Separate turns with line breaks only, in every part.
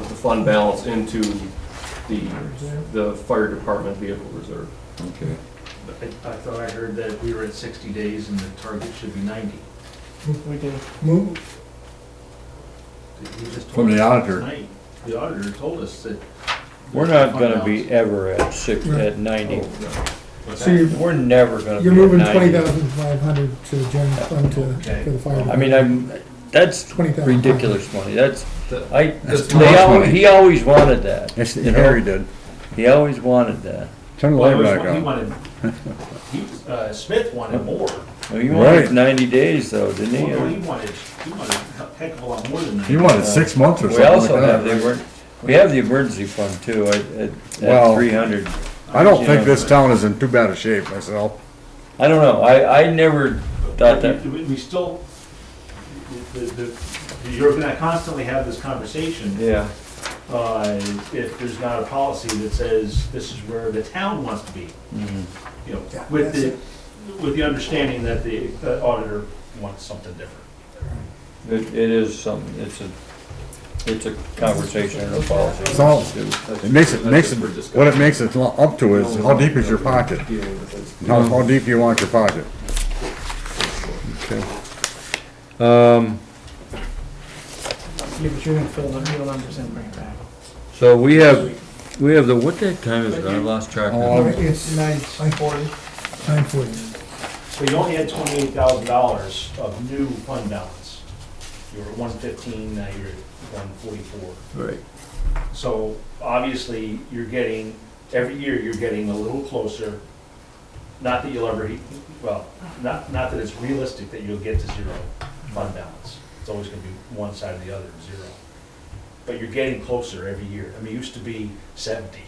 fund balance into the, the fire department vehicle reserve.
Okay.
But I I thought I heard that we were at 60 days and the target should be 90.
We did.
Move,
Did he just
From
told
the
us
auditor.
tonight? The auditor told us that.
We're not gonna be ever at six, at
Oh,
ninety.
What's
so you're,
We're never gonna be
you're
at
moving twenty
ninety.
thousand five hundred to the general fund to,
Okay.
for the fire.
I mean, I'm, that's
20,000.
ridiculous money. That's,
That-
I,
That's too
they
much
al-
money.
he always wanted that.
That's,
you know?
Harry did.
He always wanted that.
Turn the
Well,
light
he
back
was- he
on.
wanted, he, uh, Smith wanted more.
Well, He wanted
Right.
ninety days though, didn't he?
Well, He wanted, he wanted a heck of a lot more than
He
90.
wanted six months or
We
something
also
like
have the,
that.
emer- we have the emergency fund too, at, at,
Well-
at three hundred.
I
Uh,
don't
you
think
know,
this town is in too bad a shape "Oh, myself.
I don't know, I, I never thought that,
But We we still, the- the- the- you're gonna constantly have this conversation.
yeah.
uh, if there's not a policy that says this is where the town wants to be.
Mm-hmm.
You know,
Yeah,
with
that's
the, with the understanding that the the auditor wants something different.
It, it is something, it's a, it's a conversation and a policy.
It's all,
That's-
it makes it,
that's
makes it,
just for
what it
discussion.
makes it lo- up to is how deep is your pocket?
Dealing with it.
How, how deep you want your pocket?
Um,
Yeah, but you're gonna fill the real numbers in and bring it back.
so we have, we have the, what that time is it? I lost track.
Oh,
Alright, It's nine
Nine forty.
forty.
So you only had twenty-eight thousand dollars of new fund balance. You were at one fifteen, now you're at one forty-four.
Right.
So obviously, you're getting, every year, you're getting a little closer. Not that you'll ever, well, not, not that it's realistic that you'll get to zero fund balance. It's always gonna be one side or the other, zero. But you're getting closer every year. I mean, it used to be seventy,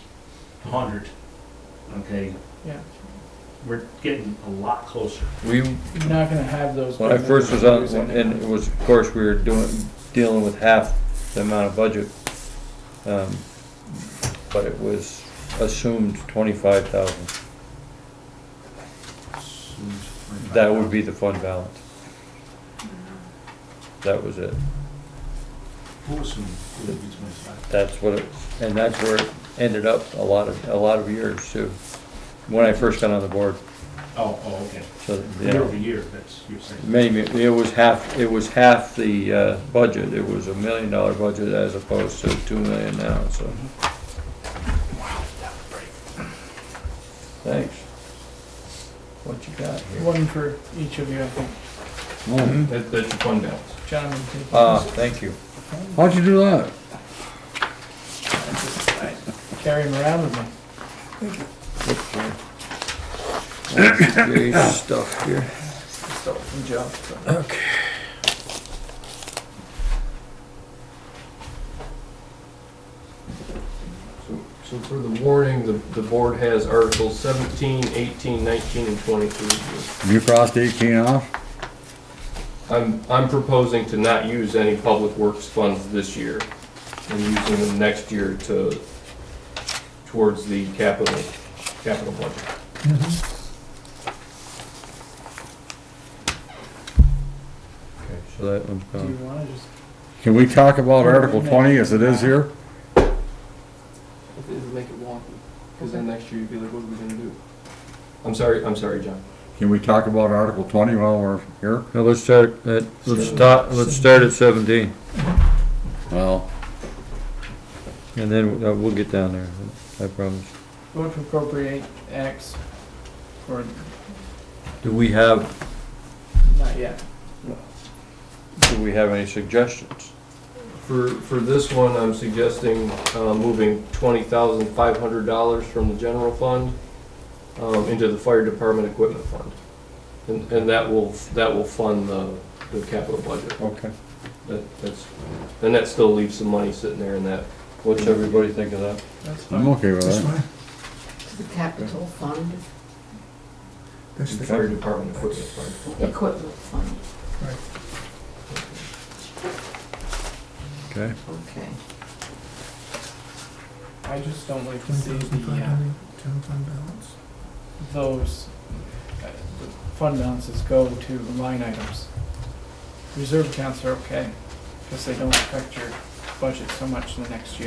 hundred, okay?
Yeah.
We're getting a lot closer.
We,
You're not gonna have those.
When I first was on, and it was, of course, we were doing, dealing with half the amount of budget. um, But it was assumed twenty-five thousand. That would be the fund balance. That was it.
Who assumed it would be twenty-five?
That's what it, and that's where it ended up a lot of, a lot of years too. When I first got on the board,
Oh, oh, okay.
so, you
Year
know.
over year, that's, you're saying.
Maybe, it was half, it was half the uh, budget, it was a million dollar budget as opposed to two million now, so. Thanks. What you got here?
One for each of you, I think.
That, that's your fund balance.
John would take.
Ah, thank you.
How'd you do that?
this. Carry him around with me.
Great stuff here.
Stole from Joe. so.
So so for the warning, the, the board has Articles 17, 18, 19, and 23.
You crossed eighteen off?
I'm, I'm proposing to not use any public works funds this year and using them next year to, towards the capital, capital budget.
Okay, So that one's
Do you
gone.
wanna just,
Can we talk about Article twenty as it is here?
It'll make it wonky, because then next year you'd be like, what are we gonna do? I'm sorry, I'm sorry, John.
Can we talk about Article twenty while we're here?
Now, let's start at, let's start, let's start at seventeen,
Well.
and then uh, we'll get down there, I promise.
vote to appropriate X, or
Do we have,
not yet.
do we have any suggestions?
For, for this one, I'm suggesting, uh, moving twenty thousand five hundred dollars from the general fund, um, into the fire department equipment fund. And, and that will, that will fund the, the capital budget.
Okay.
That, that's, then that still leaves some money sitting there in that.
What's everybody think of that?
That's fine.
I'm okay with
That's
that.
fine.
to the capital fund,
That's the,
Fire department equipment fund.
equipment fund,
Okay.
okay.
I just don't like to
twenty
see
thousand five
the, uh,
hundred, general fund balance.
those uh, the fund balances go to line items. Reserve accounts are okay, because they don't affect your budget so much in the next year.